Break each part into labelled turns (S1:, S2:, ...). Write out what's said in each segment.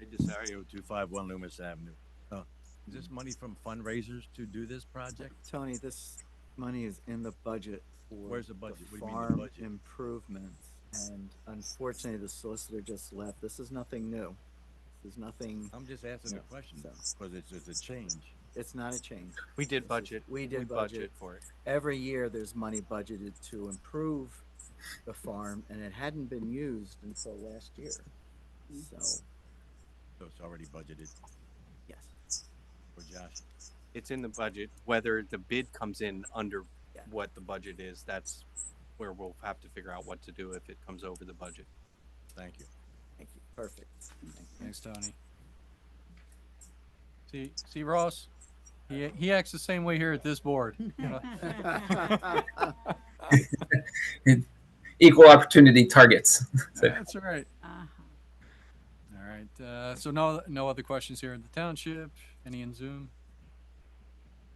S1: Ed Desario, two five one Loomis Avenue. Uh, Is this money from fundraisers to do this project?
S2: Tony, this money is in the budget for
S1: Where's the budget?
S2: the
S1: What do you mean the
S2: farm
S1: budget?
S2: improvements. And unfortunately, the solicitor just left. This is nothing new. This is nothing,
S1: I'm just asking a
S2: Yeah,
S1: question,
S2: so-
S1: because it's, it's a change.
S2: it's not a change.
S3: We
S2: This
S3: did
S2: is-
S3: budget.
S2: We did budget.
S3: for it.
S2: Every year, there's money budgeted to improve the farm and it hadn't been used until last year. So,
S1: So it's already budgeted
S2: yes,
S1: for Josh.
S3: It's in the budget. Whether the bid comes in under
S2: Yeah.
S3: what the budget is, that's where we'll have to figure out what to do if it comes over the budget.
S1: Thank you.
S2: thank you. Perfect.
S4: Thanks, Tony. See, see Ross, he, he acts the same way here at this board. you know?
S5: equal opportunity targets.
S4: That's right.
S6: Uh-huh.
S4: All right. Uh, so no, no other questions here in the township. Any in Zoom?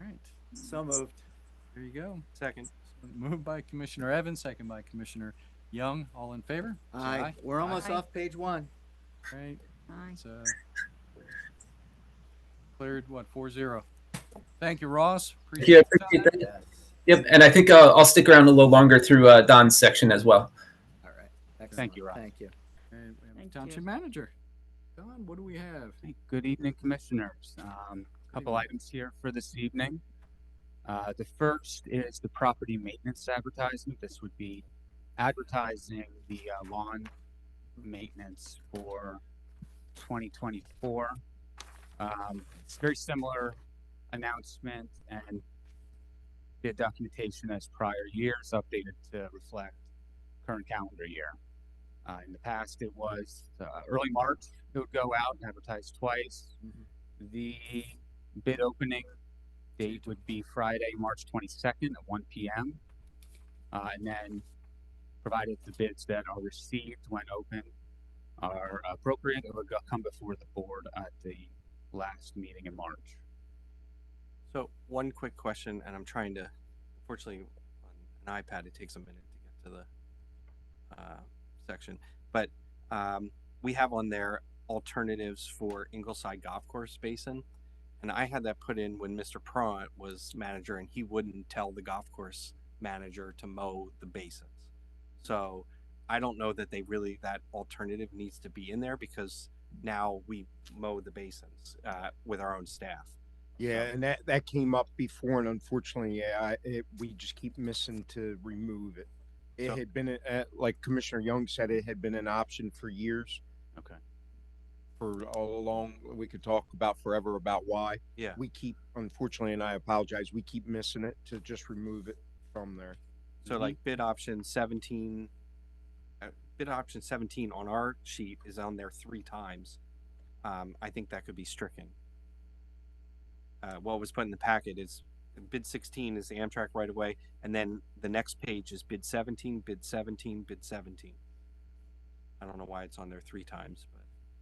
S4: All right.
S2: So moved.
S4: There you go.
S3: Second,
S4: Moved by Commissioner Evans, second by Commissioner Young. All in favor? Say
S2: Aye, we're almost
S6: Aye.
S2: off page one.
S4: All right.
S6: Aye.
S4: It's, uh, cleared, what, four zero? Thank you, Ross.
S5: Thank you. I
S4: your
S5: appreciate
S4: time.
S5: that. Yep. And I think uh, I'll stick around a little longer through uh, Don's section as well.
S2: All right.
S7: Thank
S2: Excellent.
S7: you, Rob.
S2: Thank you.
S4: All right, we have
S6: Thank
S4: Township
S6: you.
S4: manager. Don, what do we have?
S7: Hey, Good evening, Commissioners. Um, Couple
S4: evening.
S7: items here for this evening. Uh, The first is the property maintenance advertising. This would be advertising the uh, lawn maintenance for 2024. Um, It's very similar announcement and the documentation as prior years, updated to reflect current calendar year. Uh, In the past, it was uh, early March, it would go out and advertise twice. The bid opening date would be Friday, March twenty-second at one P M. Uh, and then provided the bids that are received when open are appropriate, it would go, come before the board at the last meeting in March.
S3: so one quick question, and I'm trying to, unfortunately, on an iPad, it takes a minute to get to the uh, section. But um, we have on there alternatives for Ingleside Golf Course Basin. And I had that put in when Mr. Pront was manager and he wouldn't tell the golf course manager to mow the basins. So I don't know that they really, that alternative needs to be in there because now we mow the basins uh, with our own staff.
S8: Yeah,
S3: So-
S8: and that that came up before, and unfortunately, yeah, I, it, we just keep missing to remove it. It
S3: So-
S8: had been, a- uh, like Commissioner Young said, it had been an option for years.
S7: Okay.
S8: For all along, we could talk about forever about why.
S3: Yeah.
S8: We keep, unfortunately, and I apologize, we keep missing it to just remove it from there.
S3: So like bid option seventeen, uh, bid option seventeen on our sheet is on there three times. Um, I think that could be stricken. Uh, what was put in the packet is bid sixteen is the Amtrak right away, and then the next page is bid seventeen, bid seventeen, bid seventeen. I don't know why it's on there three times, but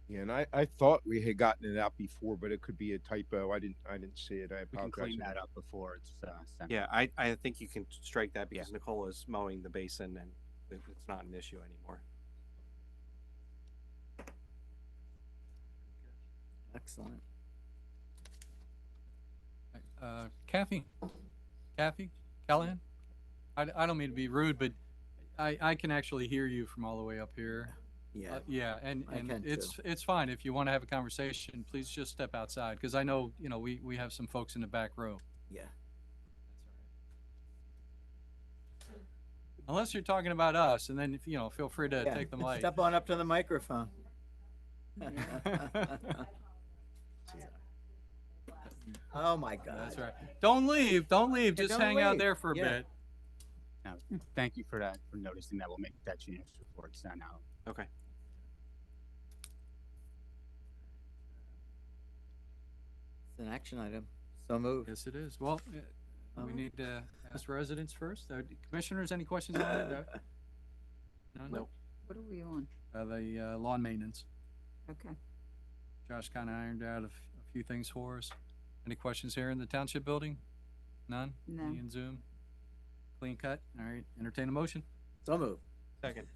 S8: Yeah, and I, I thought we had gotten it out before, but it could be a typo. I didn't, I didn't see it. I
S7: We can
S8: apologize.
S7: clean that up before it's, uh, sent.
S3: yeah, I, I think you can strike that because Nicole is mowing the basin and it- it's not an issue anymore.
S2: Excellent.
S4: Uh, Kathy, Kathy, Callahan? I, I don't mean to be rude, but I, I can actually hear you from all the way up here.
S2: Yeah.
S4: Uh, Yeah, and,
S2: I can
S4: and it's, it's fine. If you want to have a conversation, please just step outside, because I know, you know, we, we have some folks in the back row.
S2: Yeah.
S4: Unless you're talking about us, and then, you know, feel free to
S2: Yeah.
S4: take the mic.
S2: Step on up to the microphone. Oh, my
S4: That's
S2: God.
S4: right. Don't leave, don't leave,
S2: Yeah,
S4: just
S2: don't
S4: hang out
S2: leave.
S4: there for a
S2: Yeah.
S4: bit.
S7: Now, thank you for that, for noticing that. We'll make that change before it's sent out.
S3: Okay.
S2: It's an action item. So moved.
S4: Yes, it is. Well, uh,
S2: Oh.
S4: we need to ask residents first. Uh, Commissioners, any questions on that? Uh, none?
S6: Nope. What are we on?
S4: Uh, The uh, lawn maintenance.
S6: Okay.
S4: Josh kind of ironed out a f- a few things for us. Any questions here in the township building? None?
S6: No.
S4: Any in Zoom? Clean cut? All right, entertain a motion.
S2: So moved.
S3: Second.